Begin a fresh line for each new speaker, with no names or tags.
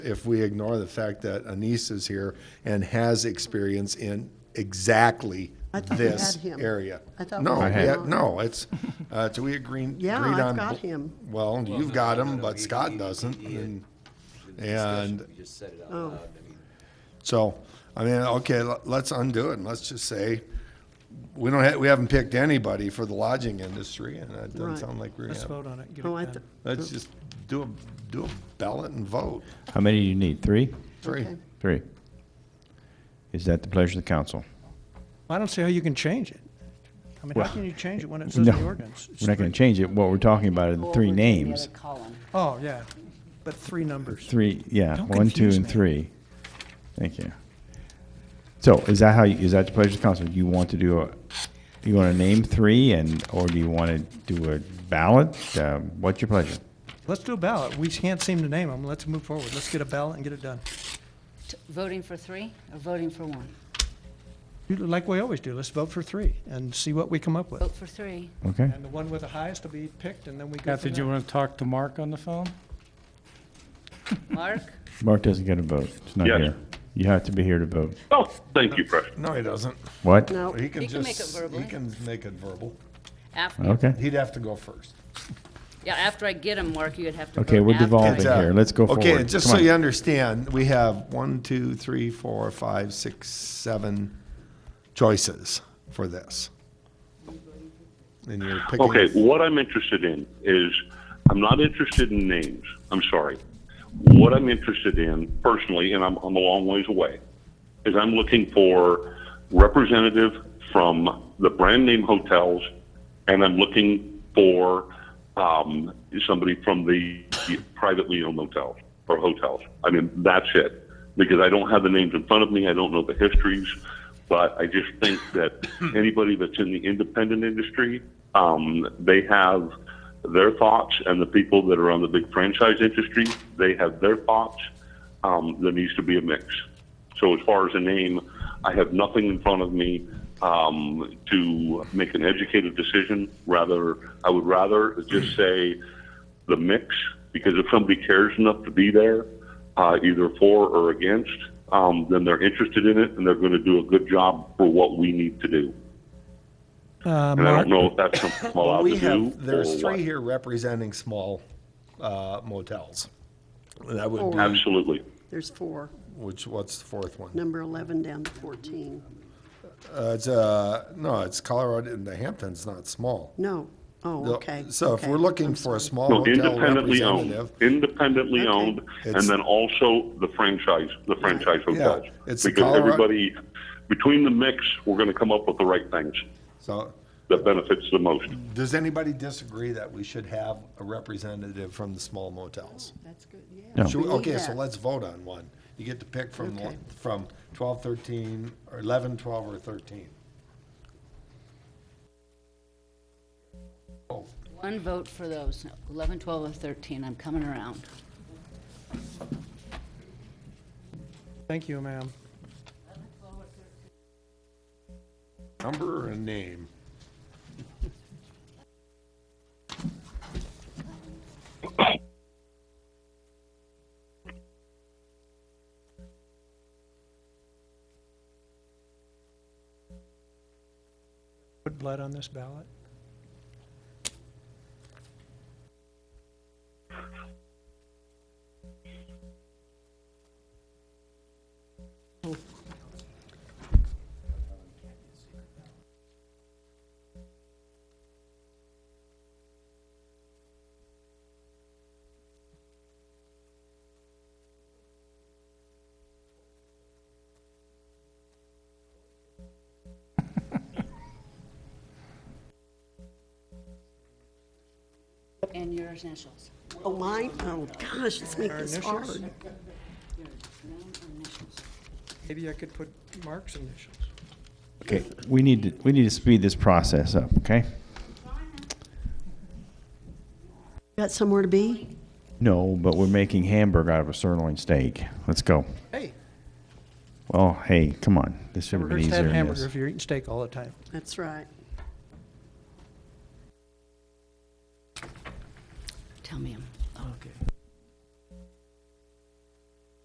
if we ignore the fact that Anise is here and has experience in exactly
I thought we
this
had him.
area.
I thought
No,
we
we
had
had-
him.
no, it's, uh, do we agree, agreed
Yeah, I've
on?
got him.
Well, you've
no,
got
no,
him,
no,
but
he-
Scott
he-
doesn't,
he had-
and,
the discussion,
and-
We just said it out
Oh.
loud. I mean,
so, I mean, okay, le- let's undo it, and let's just say, we don't have, we haven't picked anybody for the lodging industry, and that doesn't
Right.
sound like we
Let's
have.
vote on it, get
Oh, I
it
th-
done.
Let's just do a, do a ballot and vote,
How many do you need? Three?
three.
Okay.
Three. Is that the pleasure of the council?
I don't see how you can change it. I mean,
Well,
how can you change it when it says in
No,
the ordinance? It's
We're not going
three-
to change it. What we're talking about are the
Or
three
we're doing the
names.
other column.
Oh, yeah, but three numbers.
Three, yeah,
Don't
one, two,
confuse
and
me.
three. Thank you. So is that how, you is that the pleasure of the council? Do you want to do a, you want to name three and, or do you want to do a ballot? Uh, What's your pleasure?
Let's do a ballot. We can't seem to name them. Let's move forward. Let's get a ballot and get it done.
T- Voting for three or voting for one?
You- Like we always do, let's vote for three and see what we come up with.
Vote for three.
Okay?
And the one with the highest will be picked, and then we go
Kathy,
from
do you
there.
want to talk to Mark on the phone?
Mark?
Mark doesn't get a vote. It's not
Yes.
here. You have to be here to vote.
Oh, thank you, President.
No, he doesn't.
What?
No,
He can
He can make
just,
it verbally.
he can make it verbal.
After,
Okay.
He'd have to go first.
yeah, after I get him, Mark, you'd have to vote
Okay, we're
after I-
devolving
uh,
here. Let's go forward.
Okay, just
Come
so
on.
you understand, we have one, two, three, four, five, six, seven choices for this. And you're picking.
Okay, what I'm interested in is, I'm not interested in names. I'm sorry. What I'm interested in personally, and I'm, I'm a long ways away, is I'm looking for representative from the brand name hotels, and I'm looking for um, somebody from the privately owned hotels or hotels. I mean, that's it. Because I don't have the names in front of me, I don't know the histories, but I just think that anybody that's in the independent industry, um, they have their thoughts, and the people that are on the big franchise industry, they have their thoughts. Um, there needs to be a mix. So as far as a name, I have nothing in front of me um, to make an educated decision. Rather, I would rather just say the mix because if somebody cares enough to be there, uh, either for or against, um, then they're interested in it and they're going to do a good job for what we need to do.
Uh,
And I
Mark,
don't know if that's something I'm
Well,
allowed
we
to do.
have, there's
or
three
what.
here representing small uh, motels. That would
Four.
be,
Absolutely.
there's four,
which, what's the fourth one?
number 11 down to 14.
Uh, It's, uh, no, it's Colorado, the Hampton's not small.
No, oh,
The-
okay.
So if
okay,
we're
I'm
looking for a
sorry.
small
No,
hotel
independently owned,
representative.
independently
Okay.
owned, and
It's-
then also the franchise, the franchise
Yeah,
hotels.
it's
Because
Colorado-
everybody, between the mix, we're gonna come up with the right things
So
that benefits the most.
does anybody disagree that we should have a representative from the small motels?
That's good,
No.
yeah.
Should we-
We need
Okay, so
that.
let's vote on one. You get to pick from,
Okay.
one- from 12, 13, or 11, 12, or 13. Oh,
One vote for those, 11, 12, or 13, I'm coming around.
thank you, ma'am.
Number or name?
Put blood on this ballot.
And your initials.
Oh, mine, oh, gosh, let's make this
initials?
hard.
Your name and initials.
Maybe I could put Mark's initials.
Okay, we need to, we need to speed this process up, okay?
Got somewhere to be?
No, but we're making hamburger out of a sirloin steak. Let's go.
Hey,
Oh, hey, come on. This should have been
hamburgers have
easier than
hamburger
this.
if you're eating steak all the time.
That's right.
Tell me 'em.